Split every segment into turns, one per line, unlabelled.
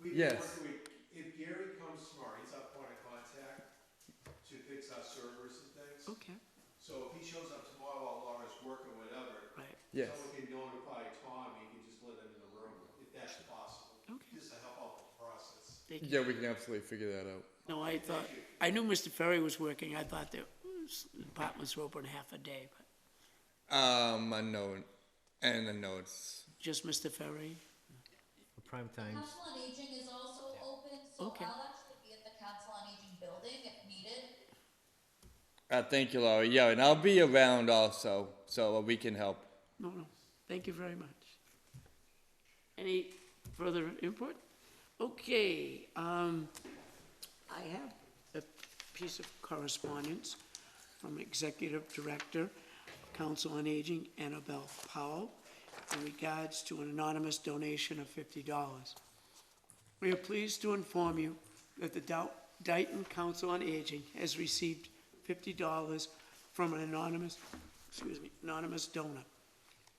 we've been
Yes.
working with, if Gary comes tomorrow, he's our point of contact to fix our servers and things.
Okay,
So if he shows up tomorrow while Laura's working, whatever,
right,
Yes.
someone can notify Tom, he can just let him in the room, if that's possible.
Okay.
Just to help out the process.
thank you.
Yeah, we can absolutely figure that out.
No, I thought, I knew Mr. Ferry was working, I thought the s- apartments were open half a day, but
Um, I know, and I know it's
just Mr. Ferry?
Prime times.
Council on Aging is also open, so
Okay.
I'll actually be at the Council on Aging building if needed.
Uh, thank you, Laura. Yeah, and I'll be around also, so we can help.
No, no, thank you very much. Any further input? Okay, um, I have a piece of correspondence from Executive Director, Council on Aging, Annabelle Powell, in regards to an anonymous donation of fifty dollars. We are pleased to inform you that the Dou- Dayton Council on Aging has received fifty dollars from an anonymous, excuse me, anonymous donor.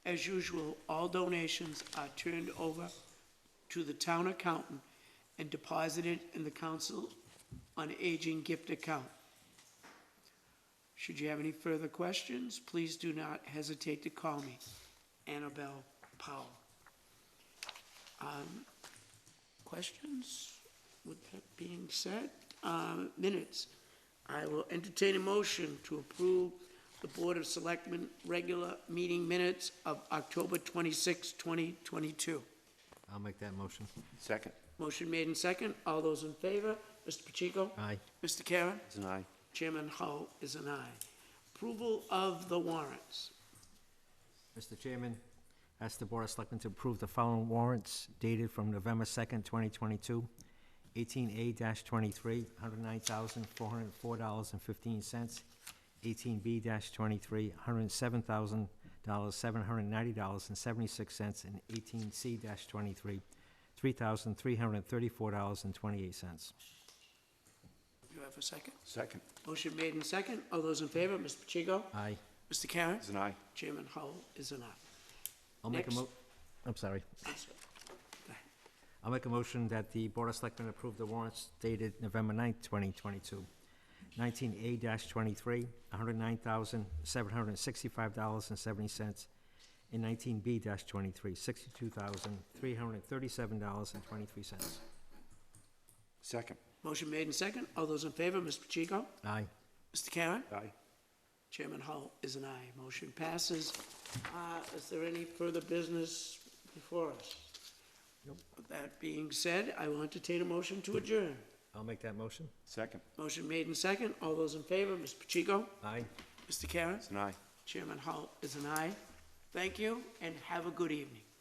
As usual, all donations are turned over to the town accountant and deposited in the Council on Aging gift account. Should you have any further questions, please do not hesitate to call me, Annabelle Powell. Um, Questions? With that being said, uh, minutes. I will entertain a motion to approve the Board of Selectmen regular meeting minutes of October 26, 2022.
I'll make that motion.
Second.
Motion made in second. All those in favor? Mr. Pacheco?
Aye.
Mr. Karen?
It's an aye.
Chairman Hull is an aye. Approval of the warrants.
Mr. Chairman, ask the Board of Selectmen to approve the following warrants dated from November second, twenty twenty-two. Eighteen A twenty-three, hundred nine thousand, four hundred and four dollars and fifteen cents. Eighteen B twenty-three, hundred and seven thousand dollars, seven hundred and ninety dollars and seventy-six cents. And eighteen C twenty-three, three thousand, three hundred and thirty-four dollars and twenty-eight cents.
Do you have a second?
Second.
Motion made in second. All those in favor? Mr. Pacheco?
Aye.
Mr. Karen?
It's an aye.
Chairman Hull is an aye.
I'll make a
Next.
mo, I'm sorry.
I'm sorry.
I'll make a motion that the Board of Selectmen approve the warrants dated November 9th, 2022. 19A-23, $109,765.70. And 19B-23, $62,337.23.
Second.
Motion made in second. All those in favor? Mr. Pacheco?
Aye.
Mr. Karen?
Aye.
Chairman Hull is an aye. Motion passes. Uh, Is there any further business before us? With that being said, I will entertain a motion to adjourn.
I'll make that motion.
Second.
Motion made in second. All those in favor, Mr. Pacheco,
Aye.
Mr. Karen,
It's an aye.
Chairman Hull is an aye. Thank you and have a good evening.